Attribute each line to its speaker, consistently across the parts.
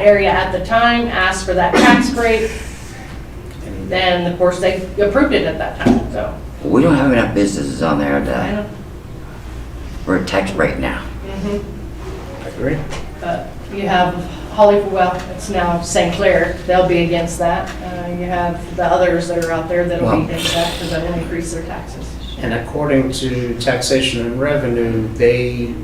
Speaker 1: area at the time, asked for that tax break, then, of course, they approved it at that time, so.
Speaker 2: We don't have enough businesses on there
Speaker 1: I
Speaker 2: to,
Speaker 1: know.
Speaker 2: we're taxed right now.
Speaker 3: I agree.
Speaker 1: But you have Holly, well, it's now St. Clair, they'll be against that. Uh, You have the others that are out there that'll be
Speaker 2: Well-
Speaker 1: against that because that'll increase their taxes.
Speaker 3: And according to taxation and revenue, they,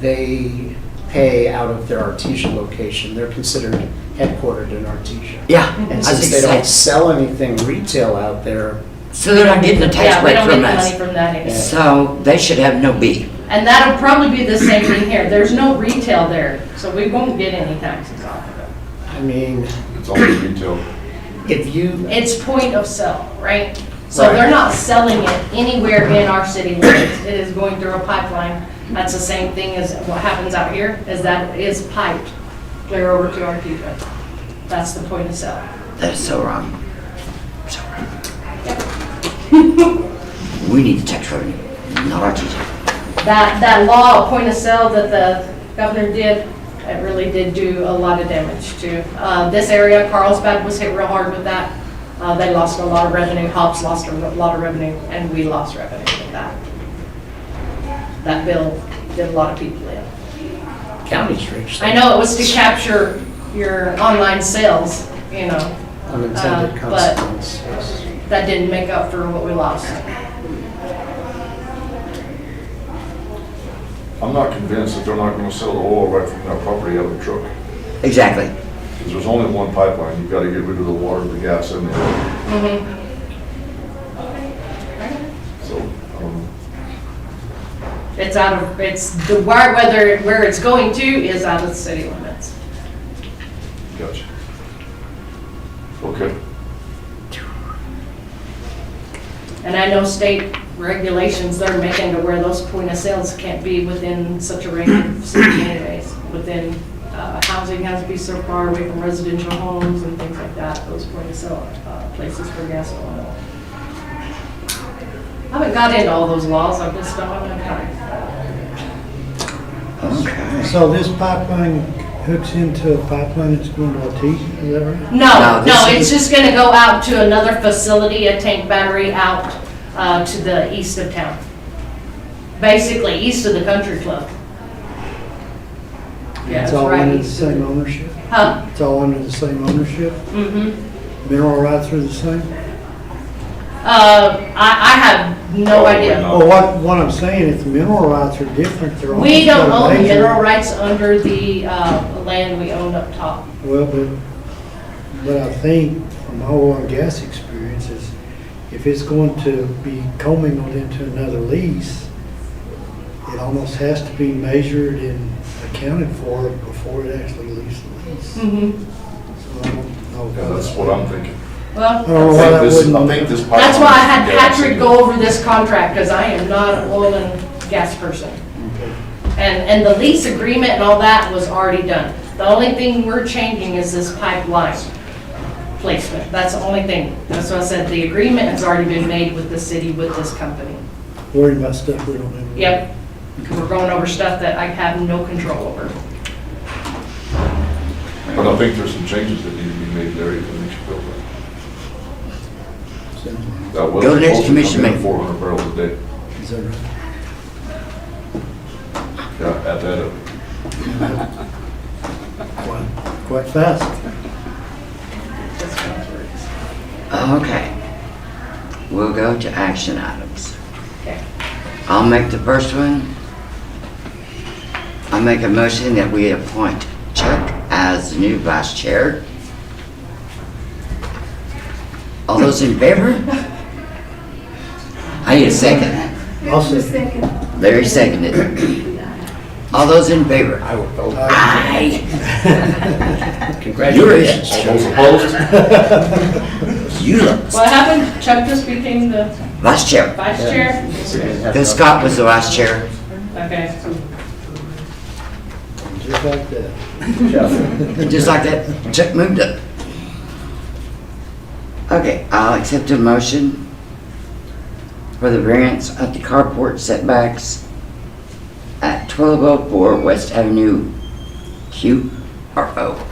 Speaker 3: they pay out of their Artesia location. They're considered headquartered in Artesia.
Speaker 2: Yeah.
Speaker 1: Mm-hmm.
Speaker 2: I
Speaker 3: And
Speaker 2: was
Speaker 3: since they don't
Speaker 2: excited.
Speaker 3: sell anything retail out there,
Speaker 2: So they're not getting a tax
Speaker 1: Yeah, we
Speaker 2: break
Speaker 1: don't get
Speaker 2: from
Speaker 1: the money
Speaker 2: us.
Speaker 1: from that anymore.
Speaker 2: So they should have no B.
Speaker 1: And that'll probably be the same thing here. There's no retail there, so we won't get any taxes off of it.
Speaker 3: I mean,
Speaker 4: It's all retail.
Speaker 3: if you,
Speaker 1: It's point of sale, right? So
Speaker 3: Right.
Speaker 1: they're not selling it anywhere in our city limits. It is going through a pipeline. That's the same thing as what happens out here, is that it is piped clear over to our people. That's the point of sale.
Speaker 2: That is so wrong. So wrong. We need the tax revenue, not our teacher.
Speaker 1: That, that law, of point of sale that the governor did, it really did do a lot of damage to uh, this area. Carlsbad was hit real hard with that. Uh, They lost a lot of revenue, Hobbs lost a lot of revenue, and we lost revenue with that. That bill did a lot of people in.
Speaker 3: counties reach
Speaker 1: I know it was to capture your online sales, you know,
Speaker 3: unintended
Speaker 1: uh, but-
Speaker 3: consequences.
Speaker 1: that didn't make up for what we lost.
Speaker 4: I'm not convinced that they're not gonna sell the oil right from their property out of the truck.
Speaker 2: Exactly.
Speaker 4: Because there's only one pipeline, you've gotta get rid of the water, the gas, and the oil. So, um, I don't know.
Speaker 1: It's out of, it's, the where, whether, where it's going to is out of the city limits.
Speaker 4: gotcha. Okay,
Speaker 1: And I know state regulations they're making to where those point of sales can't be within such a range of city anyways. Within, uh, housing has to be so far away from residential homes and things like that, those point of sale, uh, places for gas and oil. I haven't got into all those laws, I've just don't have enough time.
Speaker 2: Okay.
Speaker 5: So this pipeline hooks into a pipeline that's going to Artesia, is that right?
Speaker 1: No,
Speaker 2: No,
Speaker 1: no, it's
Speaker 2: this
Speaker 1: just gonna go out to another facility, a tank battery out, uh, to the east of town. Basically, east of the country club. Yeah, it's
Speaker 5: It's all
Speaker 1: right
Speaker 5: under the
Speaker 1: east of
Speaker 5: same
Speaker 1: the.
Speaker 5: ownership?
Speaker 1: Huh,
Speaker 5: It's all under the same ownership?
Speaker 1: mm-hmm.
Speaker 5: Mineral rights are the same?
Speaker 1: Uh, I, I have no
Speaker 4: Probably
Speaker 1: idea.
Speaker 4: not.
Speaker 5: Well, what, what I'm saying is the mineral rights are different, they're all.
Speaker 1: We don't own the
Speaker 5: major-
Speaker 1: mineral rights under the, uh, land we own up top.
Speaker 5: Well, but, but I think from my oil and gas experience is if it's going to be commingled into another lease, it almost has to be measured and accounted for before it actually leaves the lease.
Speaker 1: Mm-hmm.
Speaker 5: So I don't know.
Speaker 4: yeah, that's what I'm thinking.
Speaker 1: Well,
Speaker 5: I don't know
Speaker 4: I
Speaker 5: why
Speaker 4: think
Speaker 5: that
Speaker 4: this-
Speaker 5: wouldn't.
Speaker 4: I think this pipeline.
Speaker 1: that's why I had
Speaker 4: is gas and
Speaker 1: Patrick go over this contract, because I am not an oil and gas person. And, and the lease agreement and all that was already done. The only thing we're changing is this pipeline placement. That's the only thing. That's what I said, the agreement has already been made with the city, with this company.
Speaker 5: worried about stuff we don't have.
Speaker 1: Yep, 'Cause we're going over stuff that I have no control over.
Speaker 4: But I think there's some changes that need to be made there, even if you build that. That was
Speaker 2: Go to next
Speaker 4: supposed to
Speaker 2: commission
Speaker 4: come in
Speaker 2: meeting.
Speaker 4: four hundred barrels a day,
Speaker 5: Is that right?
Speaker 4: yeah, at that, uh,
Speaker 5: Quite, quite fast.
Speaker 1: That's how it works.
Speaker 2: Okay. We'll go to action items.
Speaker 1: Okay.
Speaker 2: I'll make the first one. I make a motion that we appoint Chuck as the new vice chair. All those in favor? I need a second.
Speaker 5: I'll say-
Speaker 2: Larry seconded. All those in favor?
Speaker 3: I would vote.
Speaker 2: Aye.
Speaker 3: Congratulations.
Speaker 4: all those opposed?
Speaker 2: You look.
Speaker 1: What happened? Chuck just became the
Speaker 2: Vice chair.
Speaker 1: vice chair?
Speaker 2: Then Scott was the vice chair.
Speaker 1: Okay.
Speaker 5: Just like that.
Speaker 2: Just like that, check moved up. Okay, I'll accept a motion for the variance of the carport setbacks at twelve oh four West Avenue Q R O.